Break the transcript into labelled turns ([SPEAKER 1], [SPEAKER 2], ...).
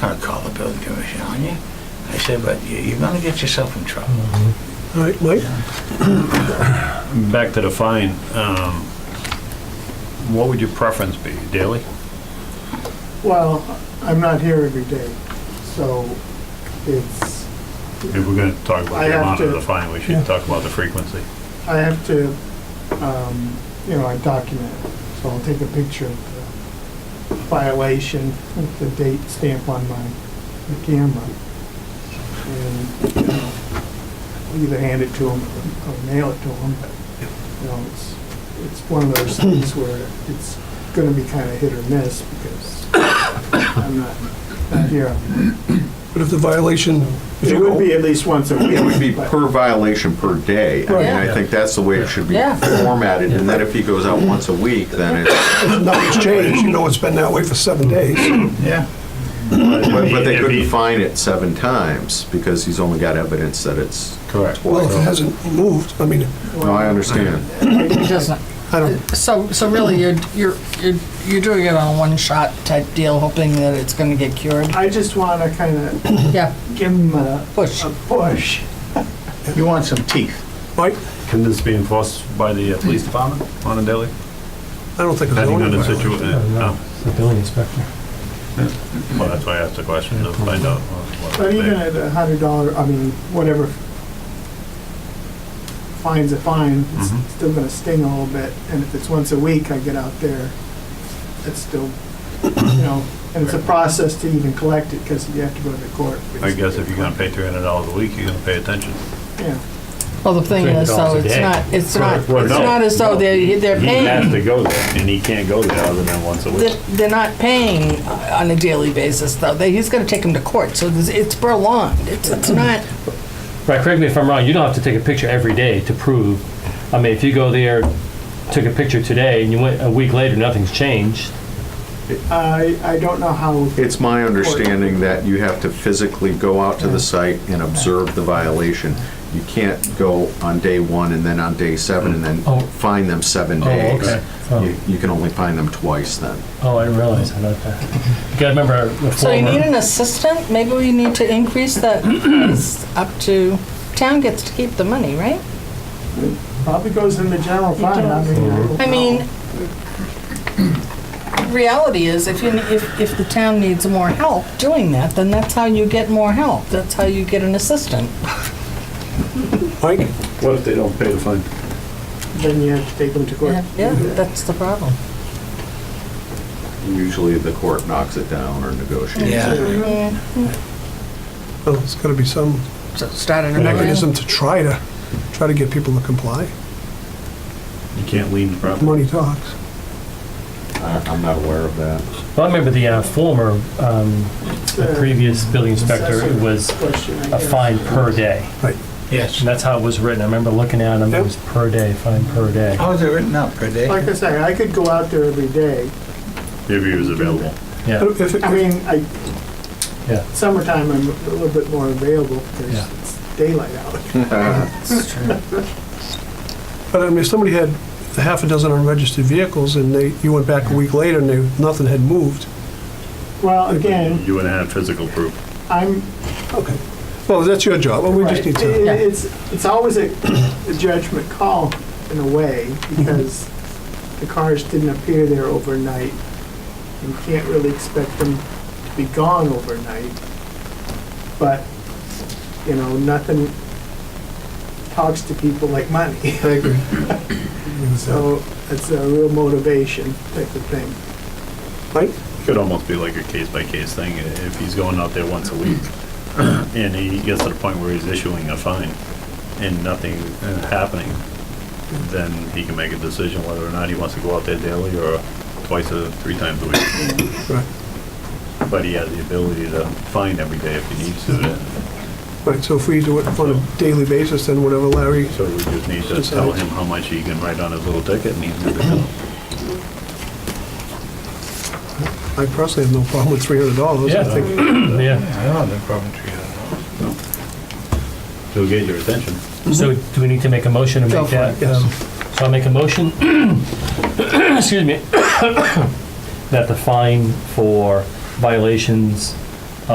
[SPEAKER 1] I called the building commissioner on you. I said, but you- you're gonna get yourself in trouble.
[SPEAKER 2] All right, Mike?
[SPEAKER 3] Back to the fine, um, what would your preference be, daily?
[SPEAKER 4] Well, I'm not here every day, so it's,
[SPEAKER 3] If we're gonna talk about
[SPEAKER 4] I
[SPEAKER 3] the
[SPEAKER 4] have
[SPEAKER 3] amount of
[SPEAKER 4] to-
[SPEAKER 3] the fine, we
[SPEAKER 2] yeah.
[SPEAKER 3] should talk about the frequency.
[SPEAKER 4] I have to, um, you know, I document it. So I'll take a picture of the violation with the date stamp on my my camera. And, you know, I'll either hand it to them or mail it to them, but, you know, it's, it's one of those things where it's gonna be kinda hit or miss because I'm not, not here.
[SPEAKER 2] But if the violation, if
[SPEAKER 4] It
[SPEAKER 2] you
[SPEAKER 4] would
[SPEAKER 2] go,
[SPEAKER 4] be at least once a week.
[SPEAKER 5] It would be
[SPEAKER 4] but-
[SPEAKER 5] per violation per day. I mean, I think that's the way it should be
[SPEAKER 6] Yeah.
[SPEAKER 5] formatted, and then if he goes out once a week, then it's,
[SPEAKER 2] nothing's changed, you know it's been that way for seven days.
[SPEAKER 1] Yeah.
[SPEAKER 5] but but they
[SPEAKER 3] If he-
[SPEAKER 5] couldn't fine it seven times, because he's only got evidence that it's,
[SPEAKER 3] Correct.
[SPEAKER 2] Well, if it hasn't moved, I mean,
[SPEAKER 5] no, I understand.
[SPEAKER 6] It doesn't.
[SPEAKER 2] I don't,
[SPEAKER 6] So, so really, you're, you're, you're you're doing it on a one-shot type deal, hoping that it's gonna get cured?
[SPEAKER 4] I just want to kind of
[SPEAKER 6] Yeah,
[SPEAKER 4] give them a,
[SPEAKER 6] push.
[SPEAKER 4] a push.
[SPEAKER 1] You want some teeth.
[SPEAKER 2] Mike,
[SPEAKER 3] Can this be enforced by the uh, police department on a daily?
[SPEAKER 2] I don't think it's
[SPEAKER 3] Depending on
[SPEAKER 2] zoning
[SPEAKER 3] the
[SPEAKER 2] violation.
[SPEAKER 3] situation, no,
[SPEAKER 7] It's the building inspector.
[SPEAKER 3] well, that's why I asked the question, to find out. what- what
[SPEAKER 4] But even
[SPEAKER 3] they-
[SPEAKER 4] at a hundred dollar, I mean, whatever fine's a fine, it's
[SPEAKER 3] Mhm.
[SPEAKER 4] still going to sting a little bit. And if it's once a week, I get out there, it's still, you know, and it's a process to even collect it because you have to go to court.
[SPEAKER 3] I guess if you're gonna pay three hundred dollars a week, you're gonna pay attention.
[SPEAKER 4] Yeah.
[SPEAKER 6] Well, the thing is, though, it's not, it's not, it's
[SPEAKER 3] Well, no,
[SPEAKER 6] not as though they're, they're
[SPEAKER 3] He has
[SPEAKER 6] paying,
[SPEAKER 3] to go there, and he can't go there other than once a week.
[SPEAKER 6] they're they're not paying on a daily basis, though. They, he's gonna take them to court, so it's- it's prolonged. It's, it's not,
[SPEAKER 7] Right, correct me if I'm wrong, you don't have to take a picture every day to prove, I mean, if you go there, took a picture today, and you went a week later, nothing's changed,
[SPEAKER 4] I, I don't know how,
[SPEAKER 5] It's my understanding that you have to physically go out to the site and observe the violation. You can't go on day one and then on day seven and
[SPEAKER 7] Oh.
[SPEAKER 5] then fine them seven
[SPEAKER 7] Oh,
[SPEAKER 5] days.
[SPEAKER 7] okay. Oh.
[SPEAKER 5] You- You can only fine them twice then.
[SPEAKER 7] oh, I didn't realize that, okay. You gotta remember, the
[SPEAKER 6] so you need
[SPEAKER 3] uh,
[SPEAKER 7] former,
[SPEAKER 6] an assistant? Maybe we need to increase that price up to, town gets to keep the money, right?
[SPEAKER 4] probably goes in the general fund. I mean, don't
[SPEAKER 6] I
[SPEAKER 4] know.
[SPEAKER 6] mean, reality is, if you, if, if the town needs more help doing that, then that's how you get more help. That's how you get an assistant.
[SPEAKER 2] Mike,
[SPEAKER 3] What if they don't pay the fine?
[SPEAKER 4] Then you have to take them to court.
[SPEAKER 6] Yeah, that's the problem.
[SPEAKER 5] Usually the court knocks it down or negotiates.
[SPEAKER 1] Yeah.
[SPEAKER 2] well, there's gotta be some
[SPEAKER 6] So start an
[SPEAKER 2] mechanism to try to, try to get people to comply.
[SPEAKER 3] You can't lean the property.
[SPEAKER 2] Money talks.
[SPEAKER 5] I- I'm not aware of that.
[SPEAKER 7] well, I remember the uh, former, um,
[SPEAKER 4] uh,
[SPEAKER 7] the previous building inspector, it was
[SPEAKER 4] Question, I
[SPEAKER 7] a
[SPEAKER 4] guess.
[SPEAKER 7] fine per day,
[SPEAKER 1] Yes.
[SPEAKER 7] and that's how it was written, I remember looking at them, it was per day, fine per day.
[SPEAKER 1] How is it written up per day?
[SPEAKER 4] Like I say, I could go out there every day.
[SPEAKER 3] If he was available.
[SPEAKER 7] Yeah,
[SPEAKER 2] But if it-
[SPEAKER 4] I mean, I,
[SPEAKER 7] yeah,
[SPEAKER 4] summertime, I'm a little bit more available
[SPEAKER 7] Yeah.
[SPEAKER 4] because it's daylight out.
[SPEAKER 2] But I mean, if somebody had a half a dozen unregistered vehicles and they, you went back a week later and they, nothing had moved,
[SPEAKER 4] Well, again,
[SPEAKER 3] You wouldn't have physical proof.
[SPEAKER 4] I'm,
[SPEAKER 2] okay. Well, that's your job, well, we
[SPEAKER 4] right,
[SPEAKER 2] just need
[SPEAKER 4] it-
[SPEAKER 2] to,
[SPEAKER 4] it's, it's always a a judgment call in a way because the cars didn't appear there overnight. You can't really expect them to be gone overnight. But, you know, nothing talks to people like money. So it's a real motivation type of thing.
[SPEAKER 2] Mike?
[SPEAKER 3] Could almost be like a case by case thing, eh, if he's going out there once a week, and he gets to the point where he's issuing a fine, and nothing is happening, then he can make a decision whether or not he wants to go out there daily or twice or three times a week.
[SPEAKER 2] Right.
[SPEAKER 3] But he has the ability to fine every day if he needs to,
[SPEAKER 2] Right, so if we do it on a daily basis, then whatever Larry,
[SPEAKER 3] so we just need to tell him how much he can write on his little ticket, and he's good to go.
[SPEAKER 2] I personally have no problem with three hundred dollars.
[SPEAKER 7] yeah, I think-
[SPEAKER 1] I
[SPEAKER 7] yeah.
[SPEAKER 1] don't have a problem with you.
[SPEAKER 3] He'll get your attention.
[SPEAKER 7] So do we need to make a motion to
[SPEAKER 6] Go
[SPEAKER 7] make
[SPEAKER 6] for
[SPEAKER 7] that?
[SPEAKER 2] it, yes.
[SPEAKER 7] um, So I'll make a motion, excuse me, that the fine for violations